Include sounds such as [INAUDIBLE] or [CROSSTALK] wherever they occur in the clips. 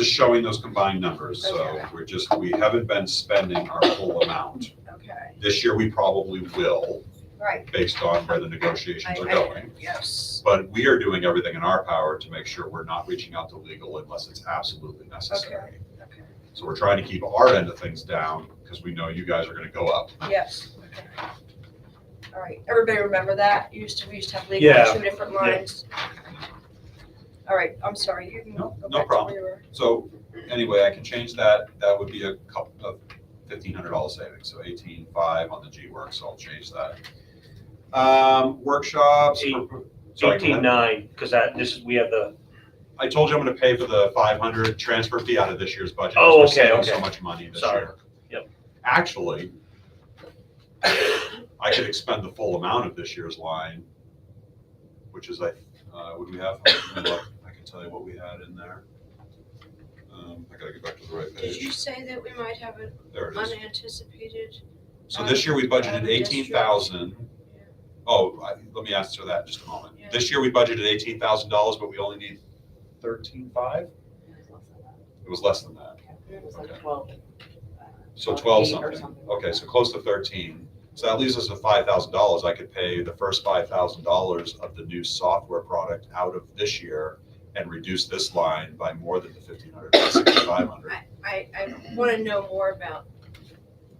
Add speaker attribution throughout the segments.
Speaker 1: just showing those combined numbers, so
Speaker 2: Okay.
Speaker 1: we're just, we haven't been spending our full amount.
Speaker 2: Okay,
Speaker 1: This year, we probably will,
Speaker 2: right,
Speaker 1: based on where the negotiations are
Speaker 2: I- I-
Speaker 1: going.
Speaker 2: yes,
Speaker 1: But we are doing everything in our power to make sure we're not reaching out to legal unless it's absolutely necessary.
Speaker 2: okay,
Speaker 1: So we're trying to keep our end of things down, because we know you guys are gonna go up.
Speaker 2: yes. okay. All right, everybody remember that? Used to, we used to have legal
Speaker 3: Yeah,
Speaker 2: on two different
Speaker 3: yeah.
Speaker 2: lines. All right, I'm sorry, you can
Speaker 1: No,
Speaker 2: go
Speaker 1: no
Speaker 2: back to
Speaker 1: problem.
Speaker 2: where you were.
Speaker 1: So, anyway, I can change that, that would be a couple of fifteen hundred dollar savings, so eighteen five on the G work, so I'll change that. Um, workshops.
Speaker 3: Eight-
Speaker 1: for- sorry, go ahead.
Speaker 3: Eighteen nine, because that, this, is we have the,
Speaker 1: I told you I'm gonna pay for the five hundred transfer fee out of this year's budget.
Speaker 3: Oh,
Speaker 1: because we're
Speaker 3: okay,
Speaker 1: saving So
Speaker 3: okay.
Speaker 1: much money this
Speaker 3: Sorry.
Speaker 1: year.
Speaker 3: Yep.
Speaker 1: Actually, I could expend the full amount of this year's line, which is, I, uh, what do we have? Let me look. I can tell you what we had in there. Um, I gotta get back to the right
Speaker 2: Did you
Speaker 1: page.
Speaker 2: say that we might have an
Speaker 1: There it is.
Speaker 2: unanticipated?
Speaker 1: So this year we budgeted
Speaker 2: Um,
Speaker 1: eighteen
Speaker 2: district.
Speaker 1: thousand. Oh, I- let me answer that in just a moment.
Speaker 2: Yeah.
Speaker 1: This year we budgeted eighteen thousand dollars, but we only need thirteen five? It was less than that.
Speaker 4: It was
Speaker 1: Okay.
Speaker 4: like twelve.
Speaker 1: So
Speaker 4: Uh,
Speaker 1: twelve
Speaker 4: eight or
Speaker 1: something,
Speaker 4: something like
Speaker 1: okay, so
Speaker 4: that.
Speaker 1: close to thirteen. So that leaves us with five thousand dollars. I could pay the first five thousand dollars of the new software product out of this year and reduce this line by more than the fifteen hundred, sixty-five hundred.
Speaker 2: I, I, I wanna know more about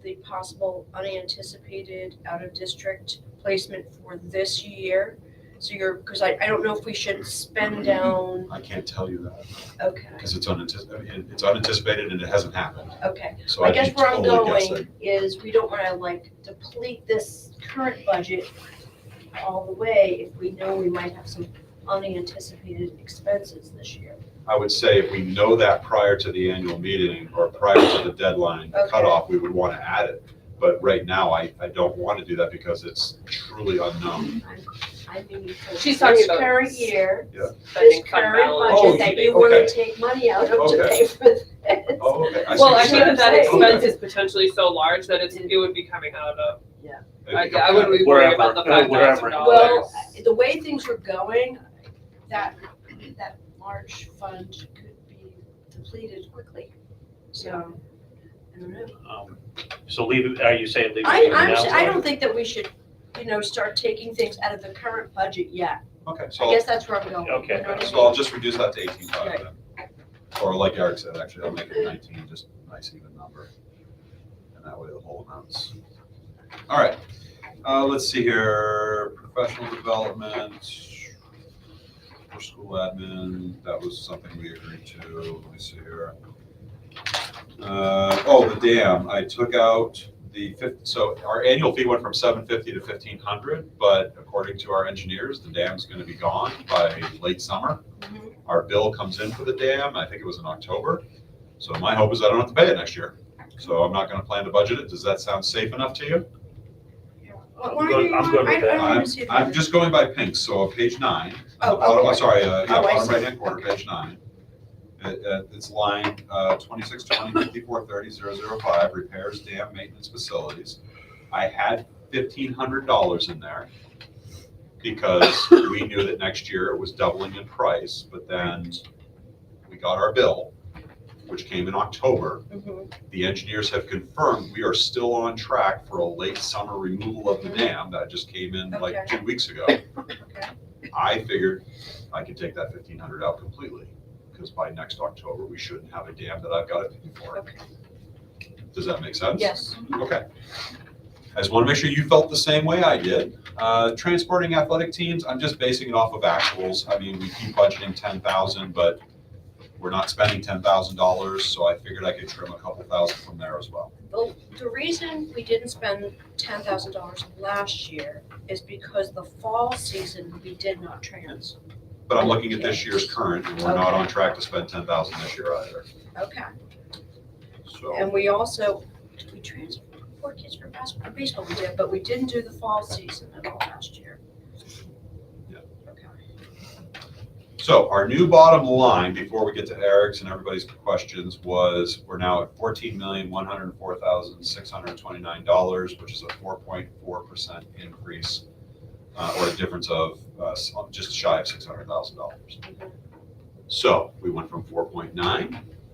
Speaker 2: the possible unanticipated out-of-district placement for this year. So you're, cause I, I don't know if we should
Speaker 1: Mm-hmm.
Speaker 2: spend down,
Speaker 1: I can't tell you that
Speaker 2: okay,
Speaker 1: because it's unanticipated, it's unanticipated and it hasn't happened.
Speaker 2: okay.
Speaker 1: So
Speaker 2: I
Speaker 1: I'd be
Speaker 2: guess where I'm
Speaker 1: totally guessing.
Speaker 2: going is we don't wanna like deplete this current budget all the way if we know we might have some unanticipated expenses this year.
Speaker 1: I would say if we know that prior to the annual meeting or prior to the deadline
Speaker 2: Okay.
Speaker 1: cutoff, we would want to add it. But right now, I, I don't want to do that because it's truly unknown.
Speaker 2: I mean, for
Speaker 4: She's talking
Speaker 2: this
Speaker 4: about
Speaker 2: current year, this
Speaker 4: Spending fund
Speaker 2: current
Speaker 4: balance.
Speaker 1: Oh,
Speaker 2: budget that
Speaker 1: you-
Speaker 2: you wanna
Speaker 1: okay.
Speaker 2: take money out of to
Speaker 1: Okay.
Speaker 2: pay for this.
Speaker 1: Oh, okay. see
Speaker 5: Well,
Speaker 1: what you're
Speaker 5: I think that that
Speaker 2: That's what I'm
Speaker 1: saying.
Speaker 5: expense is potentially so large that it's, it would be coming out of,
Speaker 1: Okay.
Speaker 5: I, I would be worried about the
Speaker 3: Wherever,
Speaker 5: five
Speaker 3: wherever.
Speaker 5: thousand dollars.
Speaker 2: Well, the way things were going, that, that large fund could be depleted quickly, so, I don't know.
Speaker 3: um, so leave, it- are you saying leave? it
Speaker 2: I,
Speaker 3: here
Speaker 2: I'm,
Speaker 3: now?
Speaker 2: s- I don't think that we should, you know, start taking things out of the current budget yet,
Speaker 1: Okay,
Speaker 2: I
Speaker 1: so,
Speaker 2: guess that's where I'm going. you
Speaker 3: Okay.
Speaker 2: know what I
Speaker 1: Oh. so I'll just reduce that to eighteen five
Speaker 2: Right.
Speaker 1: then. Or like Eric said, actually, I'll make it nineteen, just a nice even number. And that way the whole amounts. All right, uh, let's see here, professional development. For school admin, that was something we agreed to, let me see here. Uh, oh, the dam, I took out the fif, so our annual fee went from seven fifty to fifteen hundred, but according to our engineers, the dam's gonna be gone by late summer.
Speaker 2: mean?
Speaker 1: Our bill comes in for the dam, I think it was in October. So my hope is I don't have to pay it next year. So I'm not gonna plan to budget it. Does that sound safe enough to you?
Speaker 2: Why why
Speaker 3: I'm
Speaker 2: do
Speaker 3: good-
Speaker 2: you
Speaker 3: I'm
Speaker 2: want-
Speaker 3: good with
Speaker 2: I- I
Speaker 3: that.
Speaker 2: don't wanna
Speaker 1: I'm,
Speaker 2: [LAUGHS] see.
Speaker 1: I'm
Speaker 2: that.
Speaker 1: just going by pink, so on page nine.
Speaker 2: Oh,
Speaker 1: bottom- I'm
Speaker 2: okay.
Speaker 1: sorry, uh, yeah,
Speaker 2: Oh, I
Speaker 1: bottom
Speaker 2: see.
Speaker 1: right hand corner, page nine. It, uh, it's line, uh, twenty-six
Speaker 2: [LAUGHS]
Speaker 1: twenty fifty-four thirty zero zero five, repairs, dam, maintenance, facilities. I had fifteen hundred dollars in there because we knew that next year it was doubling in price, but then we got our bill, which came in October.
Speaker 2: Mhm.
Speaker 1: The engineers have confirmed we are still on track for a late summer removal of the dam that just came in like
Speaker 2: Mm-hmm. Okay.
Speaker 1: two weeks ago.
Speaker 2: Okay.
Speaker 1: I figured I could take that fifteen hundred out completely, because by next October, we shouldn't have a dam that I've got to pay for.
Speaker 2: Okay.
Speaker 1: Does that make sense?
Speaker 2: Yes,
Speaker 1: Okay. I just want to make sure you felt the same way I did. Uh, Transporting athletic teams, I'm just basing it off of actuals. I mean, we keep budgeting ten thousand, but we're not spending ten thousand dollars, so I figured I could trim a couple thousand from there as well.
Speaker 2: the, the reason we didn't spend ten thousand dollars last year is because the fall season, we did not trans.
Speaker 1: But I'm looking at this year's current, and we're not on track to spend ten thousand this year either,
Speaker 2: Okay,
Speaker 1: so.
Speaker 2: and we also, did we transfer four kids for basketball, baseball we did, but we didn't do the fall season at all last year.
Speaker 1: Yeah.
Speaker 2: Okay.
Speaker 1: So our new bottom line, before we get to Eric's and everybody's questions, was we're now at fourteen million, one hundred and four thousand, six hundred and twenty-nine dollars, which is a four point four percent increase, uh, or a difference of, uh, s- just shy of six hundred thousand dollars. So we went from four point nine